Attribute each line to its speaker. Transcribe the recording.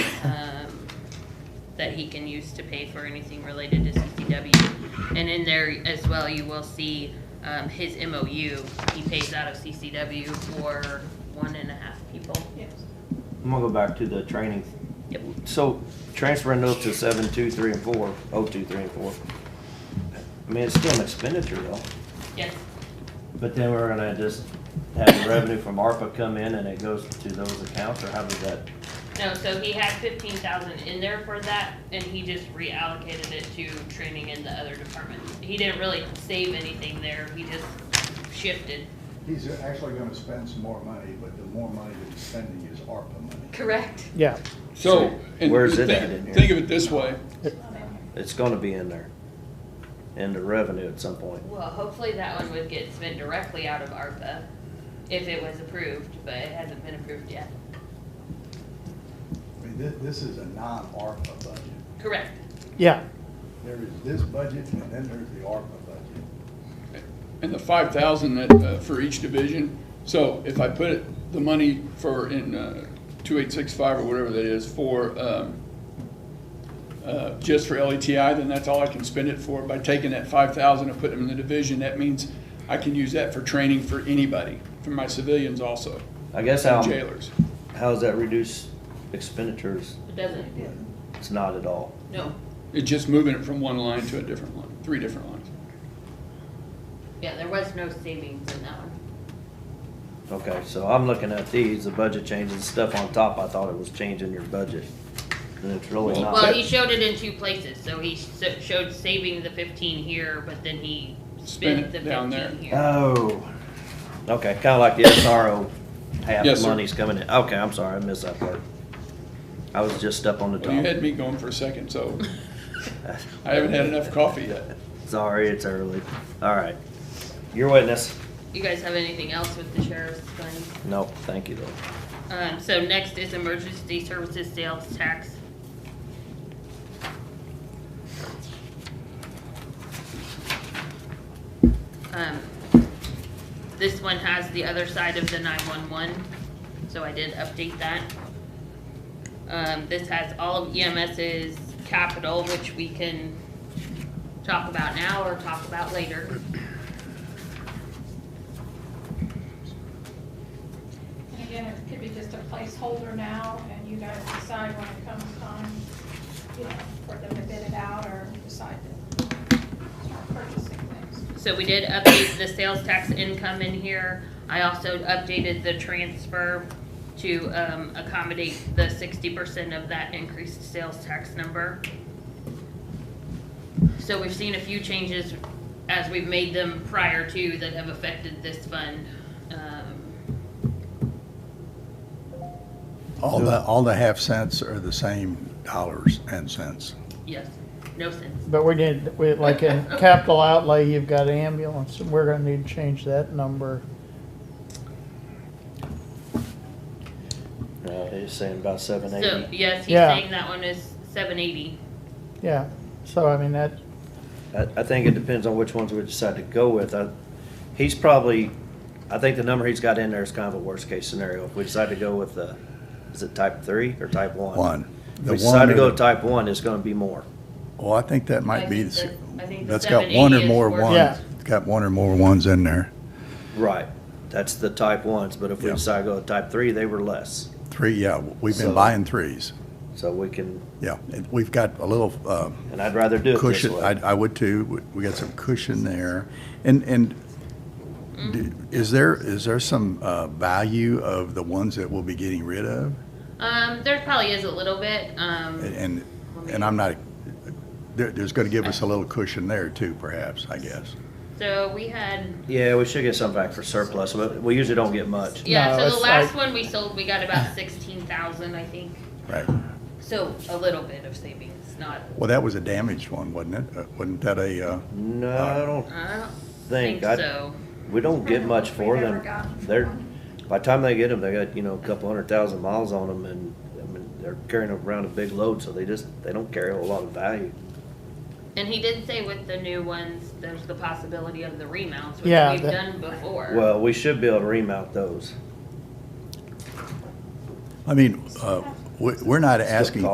Speaker 1: um, that he can use to pay for anything related to CCW. And in there as well, you will see, um, his MOU, he pays out of CCW for one and a half people.
Speaker 2: I'm gonna go back to the training.
Speaker 1: Yep.
Speaker 2: So transferring those to seven, two, three, and four, oh, two, three, and four. I mean, it's still an expenditure though,
Speaker 1: Yes,
Speaker 2: but then we're gonna just have the revenue from ARPA come in and it goes to those accounts, or how does that?
Speaker 1: no, so he had fifteen thousand in there for that, and he just reallocated it to training in the other departments. He didn't really save anything there, he just shifted.
Speaker 3: He's actually gonna spend some more money, but the more money that he's spending is ARPA money.
Speaker 1: Correct.
Speaker 4: Yeah,
Speaker 2: So,
Speaker 5: So, and
Speaker 2: where's it at in here?
Speaker 5: think, think of it this way,
Speaker 2: It's gonna be in there, in the revenue at some point.
Speaker 1: Well, hopefully that one would get spent directly out of ARPA if it was approved, but it hasn't been approved yet.
Speaker 3: I mean, this, this is a non-ARPA budget.
Speaker 1: Correct.
Speaker 4: yeah.
Speaker 3: There is this budget and then there's the ARPA budget.
Speaker 5: and the five thousand that, uh, for each division, so if I put it- the money for in, uh, two eight six five or whatever that is for, um, uh, just for LETI, then that's all I can spend it for. By taking that five thousand and putting it in the division, that means I can use that for training for anybody, for my civilians also,
Speaker 2: I guess how,
Speaker 5: and jailers.
Speaker 2: how does that reduce expenditures?
Speaker 1: It doesn't.
Speaker 2: It's not at all.
Speaker 1: No.
Speaker 5: It's just moving it from one line to a different line, three different lines.
Speaker 1: Yeah, there was no savings in that one.
Speaker 2: Okay, so I'm looking at these, the budget changes, the stuff on top, I thought it was changing your budget, and it's really
Speaker 5: Well,
Speaker 2: not.
Speaker 1: Well, he showed it in two places, so he s- showed saving the fifteen here, but then he spent
Speaker 5: Spent
Speaker 1: the
Speaker 5: it down there. Uh.
Speaker 1: fifteen here.
Speaker 2: Oh, okay, kinda like the SRO, half
Speaker 5: Yes,
Speaker 2: the
Speaker 5: sir.
Speaker 2: money's coming in, okay, I'm sorry, I missed that part. I was just up on the
Speaker 5: Well, you had
Speaker 2: top.
Speaker 5: me going for a second, so I haven't had enough coffee yet.
Speaker 2: Sorry, it's early, alright, your witness,
Speaker 1: You guys have anything else with the sheriff's fund?
Speaker 2: no, thank you though.
Speaker 1: Um, so next is emergency services sales tax. Um, this one has the other side of the nine-one-one, so I did update that. Um, this has all of EMS's capital, which we can talk about now or talk about later.
Speaker 6: And again, it could be just a placeholder now, and you guys decide when it comes time, you know, for them to bid it out or decide to start purchasing things.
Speaker 1: So we did update the sales tax income in here. I also updated the transfer to um, accommodate the sixty percent of that increased sales tax number. So we've seen a few changes as we've made them prior to that have affected this fund. Um,
Speaker 7: All the, all the half cents are the same dollars and cents.
Speaker 1: Yes, no sense.
Speaker 4: But we did, we, like in capital outlay, you've got ambulance, and we're gonna need to change that number.
Speaker 2: Uh, he's saying about seven
Speaker 1: So,
Speaker 2: eighty,
Speaker 1: yes, he's
Speaker 4: Yeah.
Speaker 1: saying that one is seven eighty.
Speaker 4: Yeah, so I mean, that,
Speaker 2: I, I think it depends on which ones we decide to go with, I, he's probably, I think the number he's got in there is kind of a worst case scenario, if we decide to go with the, is it type three or type one?
Speaker 7: One.
Speaker 2: If
Speaker 7: The
Speaker 2: we decide to
Speaker 7: one or
Speaker 2: go
Speaker 7: the-
Speaker 2: type one, it's gonna be more.
Speaker 7: Well, I think that
Speaker 1: I
Speaker 7: might be,
Speaker 1: think
Speaker 7: the s-
Speaker 1: that- I think the
Speaker 7: that's got one
Speaker 1: 780
Speaker 7: or
Speaker 1: is
Speaker 7: more
Speaker 1: worth-
Speaker 7: ones.
Speaker 4: Yeah.
Speaker 7: It's Got one or more ones in there.
Speaker 2: Right, that's the type ones, but if we
Speaker 7: Yeah.
Speaker 2: decide to go with type three, they were less.
Speaker 7: Three, yeah, we've
Speaker 2: So-
Speaker 7: been buying threes.
Speaker 2: So we can,
Speaker 7: Yeah, and we've got a little uh,
Speaker 2: and I'd rather do it this
Speaker 7: cushion, I,
Speaker 2: way.
Speaker 7: I would too. We- We got some cushion there. And, and d- is there, is there some uh, value of the ones that we'll be getting rid of?
Speaker 1: Um, there probably is a little bit, um,
Speaker 7: And- And, and I'm not, there, there's gonna give us a little cushion there too, perhaps, I guess.
Speaker 1: so we had
Speaker 2: Yeah, we should get some back for surplus, but we usually don't get much.
Speaker 1: Yeah,
Speaker 4: No,
Speaker 1: so the
Speaker 4: it's
Speaker 1: last
Speaker 4: like-
Speaker 1: one we sold, we got about sixteen thousand, I think.
Speaker 7: Right.
Speaker 1: So a little bit of savings, not.
Speaker 7: Well, that was a damaged one, wasn't it? Uh, Wasn't that a, uh,
Speaker 2: No, I don't
Speaker 1: I don't think
Speaker 2: think, I,
Speaker 1: so.
Speaker 2: we don't get much
Speaker 6: We
Speaker 2: for
Speaker 6: never
Speaker 2: them.
Speaker 6: got
Speaker 2: They're,
Speaker 6: one.
Speaker 2: by the time they get them, they got, you know, a couple hundred thousand miles on them and, I mean, they're carrying around a big load, so they just, they don't carry a whole lot of value.
Speaker 1: And he did say with the new ones, there's the possibility of the remounts, which
Speaker 4: Yeah,
Speaker 1: we've done
Speaker 4: that-
Speaker 1: before.
Speaker 2: Well, we should be able to remount those.
Speaker 7: I mean, uh, we- we're not asking